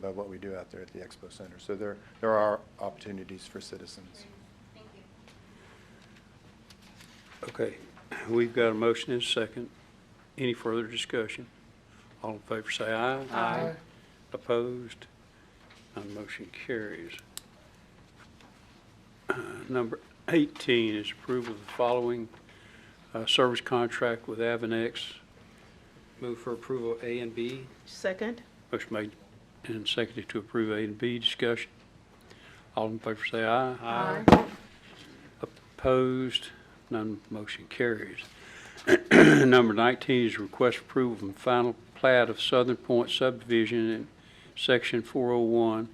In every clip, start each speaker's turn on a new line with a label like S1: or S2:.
S1: about what we do out there at the Expo Center. So there, there are opportunities for citizens.
S2: Thank you.
S3: Okay, we've got a motion and a second. Any further discussion? All in favor say aye. Aye. Opposed? None motion carries. Uh, Number 18 is approval of the following uh, service contract with Avanex.
S4: Move for approval A and B.
S5: Second?
S3: Motion made and seconded to approve A and B. Discussion. All in favor say aye.
S5: Aye.
S3: Opposed? None motion carries. Number 19 is request approval from final plat of Southern Point subdivision in Section 401,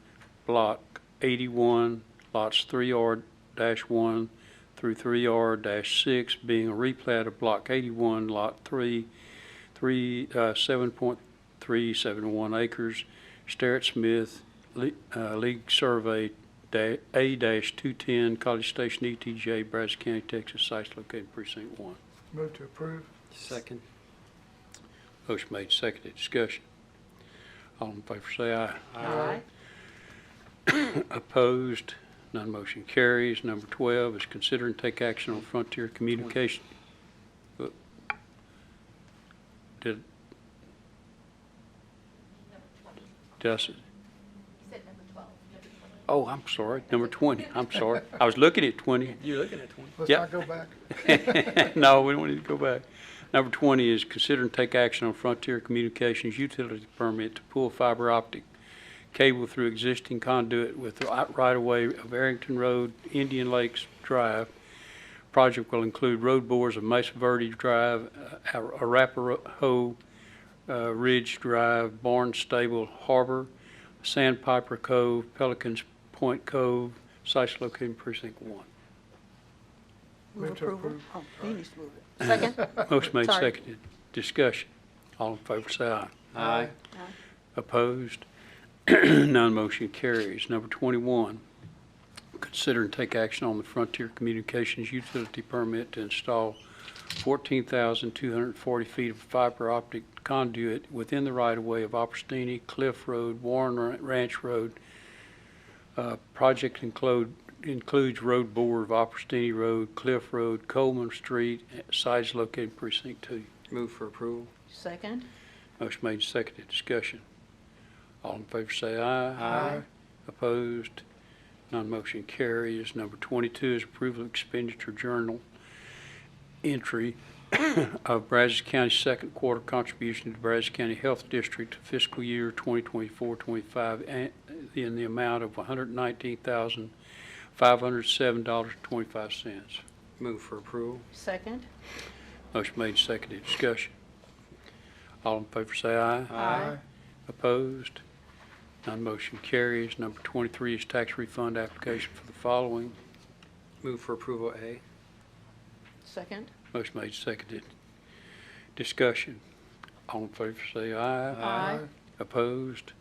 S3: Block 81, lots 3R-1 through 3R-6, being a replat of Block 81, Lot 3, 3, uh, 7.371 acres, Starrett Smith, Le- uh, League Survey da- A-210, College Station ETJ, Brazos County, Texas, sites located precinct one.
S6: Move to approve.
S4: Second.
S3: Motion made, seconded, discussion. All in favor say aye.
S5: Aye.
S3: Opposed, none motion carries. Number 12 is consider and take action on Frontier Communication. Uh, Did,
S2: Number 20. You
S3: did I s-
S2: said number 12, number 20.
S3: oh, I'm sorry, number 20, I'm sorry. I was looking at 20,
S4: You're looking at one.
S6: Let's
S3: Yep.
S6: not go back.
S3: No, we don't need to go back. Number 20 is consider and take action on Frontier Communications utility permit to pull fiber optic cable through existing conduit with the right- right-of-way of Arrington Road, Indian Lakes Drive. Project will include road bores of Mesa Verde Drive, uh, Arapahoe uh, Ridge Drive, Barnstable Harbor, Sandpiper Cove, Pelicans Point Cove, sites located in precinct one.
S6: Move to approve.
S5: Oh, he needs to move it. Second?
S3: Motion made,
S5: Sorry.
S3: seconded. Discussion. All in favor, say aye.
S4: Aye.
S3: Opposed? None motion carries. Number 21, consider and take action on the Frontier Communications utility permit to install 14,240 feet of fiber optic conduit within the right-of-way of Opportunity Cliff Road, Warren Ra- Ranch Road. Uh, Project include- includes road board of Opportunity Road, Cliff Road, Coleman Street, sites located in precinct 2.
S4: Move for approval.
S5: Second?
S3: Motion made, and seconded, discussion. All in favor say aye.
S6: Aye.
S3: Opposed? Non-motion carries. Number 22 is approval of expenditure journal entry of Brazos County's second quarter contribution to Brazos County Health District fiscal year 2024-25 and- in the amount of $119,507.25.
S4: Move for approval.
S5: Second?
S3: Motion made, and seconded, discussion. All in favor say aye. Opposed? None motion carries. Number 23 is tax refund application for the following.
S4: Move for approval A.
S5: Second?
S3: Motion made, seconded. Discussion. All in favor say aye.
S5: Aye.
S3: Opposed?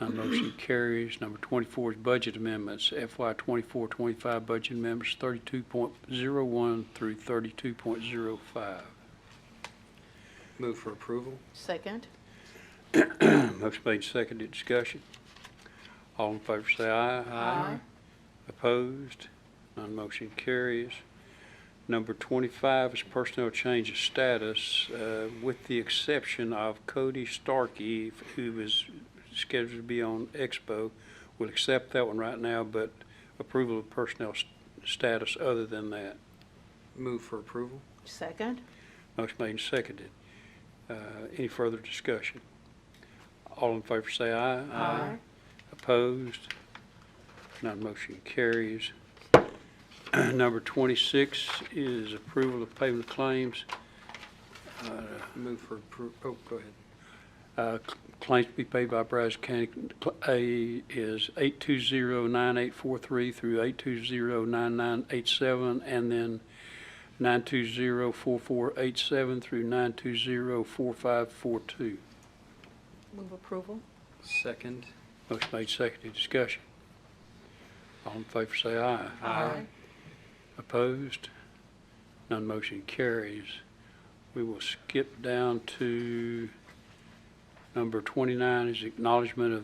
S3: None motion carries. Number 24 is budget amendments. FY 24-25 budget amendments 32.01 through 32.05.
S4: Move for approval.
S5: Second?
S3: Motion made, seconded. Discussion. All in favor say aye. Opposed? None motion carries. Number 25 is personnel change of status, uh, with the exception of Cody Starkey, who is scheduled to be on Expo. We'll accept that one right now, but approval of personnel s- status other than that.
S4: Move for approval.
S5: Second?
S3: Motion made and seconded. Uh, Any further discussion? All in favor say aye.
S5: Aye.
S3: Opposed? None motion carries. Number 26 is approval of payment of claims. Uh,
S4: Move for appro, oh, go ahead.
S3: uh, cl- Claims to be paid by Brazos County cl- A is 8209843 through 8209987, and then 9204487 through 9204542.
S5: Move approval?
S4: Second.
S3: Motion made, seconded, discussion. All in favor say aye.
S4: Aye.
S3: Opposed? None motion carries. We will skip down to number 29 is acknowledgement of